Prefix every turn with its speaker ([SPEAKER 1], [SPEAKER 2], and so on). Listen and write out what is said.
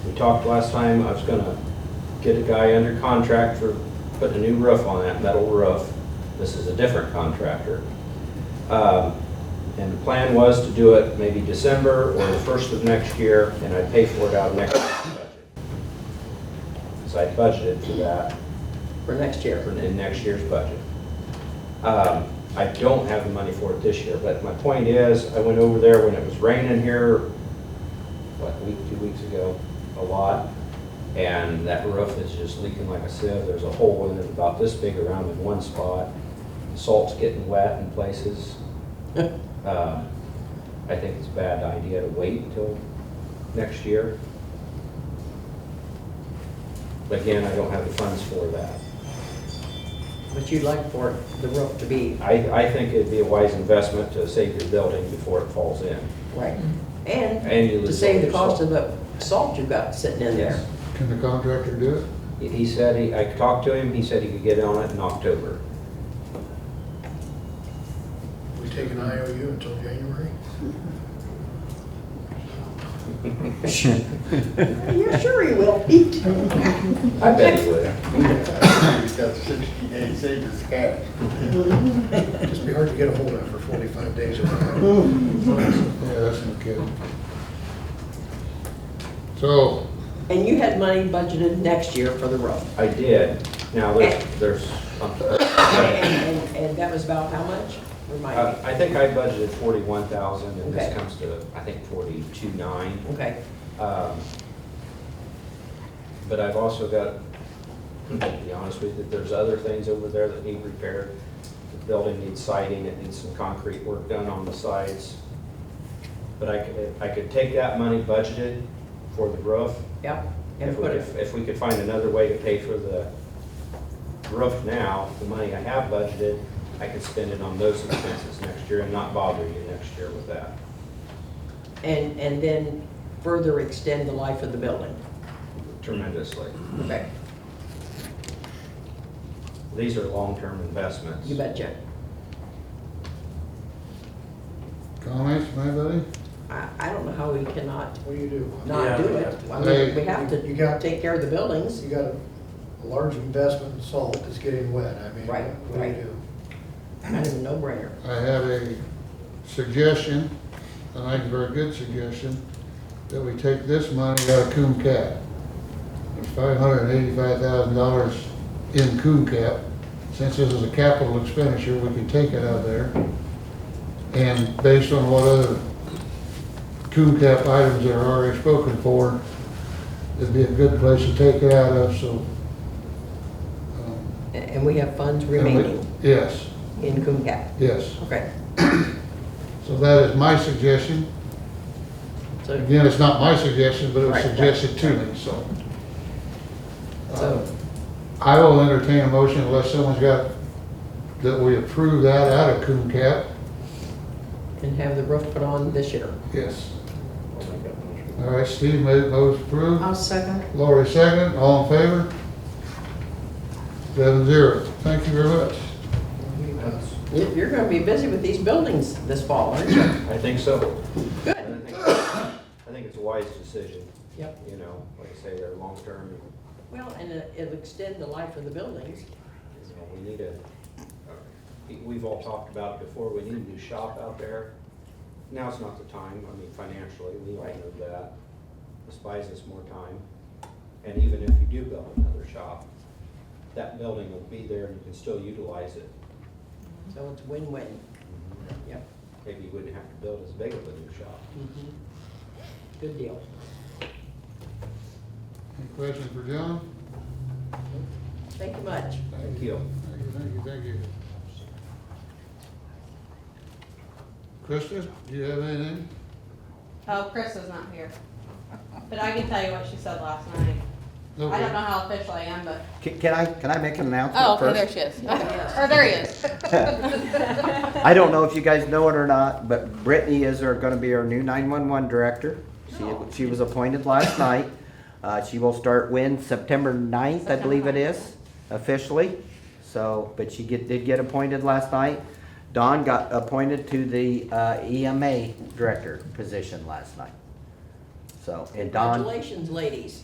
[SPEAKER 1] talked last time, I was gonna get a guy under contract for putting a new roof on that metal roof. This is a different contractor. Um, And the plan was to do it maybe December or the first of next year, and I'd pay for it out of next year's budget. So I budgeted for that
[SPEAKER 2] for next
[SPEAKER 1] for-
[SPEAKER 2] year.
[SPEAKER 1] in next year's budget. Um, I don't have the money for it this year, but my point is, I went over there when it was raining here, what, a week, two weeks ago, a lot, and that roof is just leaking like a sieve. There's a hole in it about this big around in one spot. Salt's getting wet in places. Um, I think it's a bad idea to wait until next year. But Again, I don't have the funds for that.
[SPEAKER 2] But you'd like for the roof to be
[SPEAKER 1] I, I think it'd be a wise investment to save your building before it falls in.
[SPEAKER 2] right.
[SPEAKER 1] And you
[SPEAKER 2] And to
[SPEAKER 1] lose
[SPEAKER 2] save the
[SPEAKER 1] all your
[SPEAKER 2] cost of the salt you've got sitting in there.
[SPEAKER 3] Can the contractor do it?
[SPEAKER 1] He- He said, he- I talked to him, he said he could get on it in October.
[SPEAKER 4] We take an IOU until January?
[SPEAKER 2] You're sure he will, Pete.
[SPEAKER 1] I bet he would.
[SPEAKER 5] He's got sixty days saved his cash.
[SPEAKER 4] Just be hard to get a hold of for 45 days. or whatever.
[SPEAKER 3] Yeah, that's no kidding. So,
[SPEAKER 2] And you had money budgeted next year for the roof.
[SPEAKER 1] I did. Now, there's, there's,
[SPEAKER 2] And, and- and that was about how much? Remind
[SPEAKER 1] Uh, I think I budgeted forty-one thousand, and this
[SPEAKER 2] Okay.
[SPEAKER 1] comes to, I think, forty-two nine.
[SPEAKER 2] me. Okay,
[SPEAKER 1] Um, But I've also got, to be honest with you, there's other things over there that need repaired. The building needs siding, it needs some concrete work done on the sides. But I could, I could take that money budgeted for the roof.
[SPEAKER 2] yep. And
[SPEAKER 1] If we,
[SPEAKER 2] put
[SPEAKER 1] if
[SPEAKER 2] it,
[SPEAKER 1] if we could find another way to pay for the roof now, the money I have budgeted, I could spend it on those expenses next year and not bother you next year with that.
[SPEAKER 2] and, and then further extend the life of the building.
[SPEAKER 1] tremendously.
[SPEAKER 2] Okay,
[SPEAKER 1] These are long-term investments.
[SPEAKER 2] you betcha.
[SPEAKER 3] comments, anybody?
[SPEAKER 2] I, I don't know how we cannot
[SPEAKER 4] What do you do?
[SPEAKER 2] not do it. I mean, we have
[SPEAKER 4] You got-
[SPEAKER 2] to take care of the buildings.
[SPEAKER 4] You got a a large investment in salt that's getting wet. I mean,
[SPEAKER 2] Right,
[SPEAKER 4] what do you
[SPEAKER 2] right.
[SPEAKER 4] do?
[SPEAKER 2] Kind of a no-brainer.
[SPEAKER 3] I have a suggestion, and I think a very good suggestion, that we take this money out of Coom Cap. There's five hundred and eighty-five thousand dollars in Coom Cap. Since this is a capital expenditure, we can take it out of there. And based on what other Coom Cap items that are already spoken for, it'd be a good place to take it out of, so. um,
[SPEAKER 2] And- And we have funds
[SPEAKER 3] and we-
[SPEAKER 2] remaining
[SPEAKER 3] Yes,
[SPEAKER 2] in Coon Gap.
[SPEAKER 3] yes.
[SPEAKER 2] Okay,
[SPEAKER 3] So that is my suggestion.
[SPEAKER 2] so,
[SPEAKER 3] Again, it's not my suggestion, but it was
[SPEAKER 2] Right, right,
[SPEAKER 3] suggested to me, so. Uh,
[SPEAKER 2] so,
[SPEAKER 3] I will entertain a motion unless someone's got, that we approve that out of coon cap.
[SPEAKER 2] and have the roof put on this year.
[SPEAKER 3] Yes. All right, Steve made most approved.
[SPEAKER 6] I'll second.
[SPEAKER 3] Lori second, all in favor? Seven zero. Thank you very much.
[SPEAKER 2] You- You're gonna be busy with these buildings this fall, aren't you?
[SPEAKER 1] I think so.
[SPEAKER 2] Good.
[SPEAKER 1] And I think- I think it's a wise decision,
[SPEAKER 2] Yep.
[SPEAKER 1] you know, like I say, they're long-term,
[SPEAKER 2] Well, and it- it'll extend the life of the buildings.
[SPEAKER 1] you know, we need a, a- we've all talked about it before, we need a new shop out there. Now's not the time, I mean, financially, we all know that. This buys us more time. And even if you do build another shop, that building will be there and you can still utilize it.
[SPEAKER 2] So it's win-win. Yep.
[SPEAKER 1] Maybe you wouldn't have to build as big of a new shop.
[SPEAKER 2] Mhm. Good deal.
[SPEAKER 3] Any questions for John?
[SPEAKER 2] Thank you much.
[SPEAKER 1] Thank you.
[SPEAKER 3] Thank you, thank you, thank you. Krista, do you have anything?
[SPEAKER 6] Oh, Chris is not here. But I can tell you what she said last night. I don't know how official I am, but.
[SPEAKER 7] Can can I, can I make an
[SPEAKER 6] Oh,
[SPEAKER 7] announcement
[SPEAKER 6] okay, there
[SPEAKER 7] first?
[SPEAKER 6] she is. Or there he is.
[SPEAKER 7] I don't know if you guys know it or not, but Brittany is our, gonna be our new nine-one-one director. She, she was appointed last night. Uh, she will start when, September 9th, I believe it
[SPEAKER 6] September 9th.
[SPEAKER 7] is, officially. So, but she get, did get appointed last night. Dawn got appointed to the, uh, EMA director position last night. So, and Dawn.
[SPEAKER 2] Congratulations, ladies.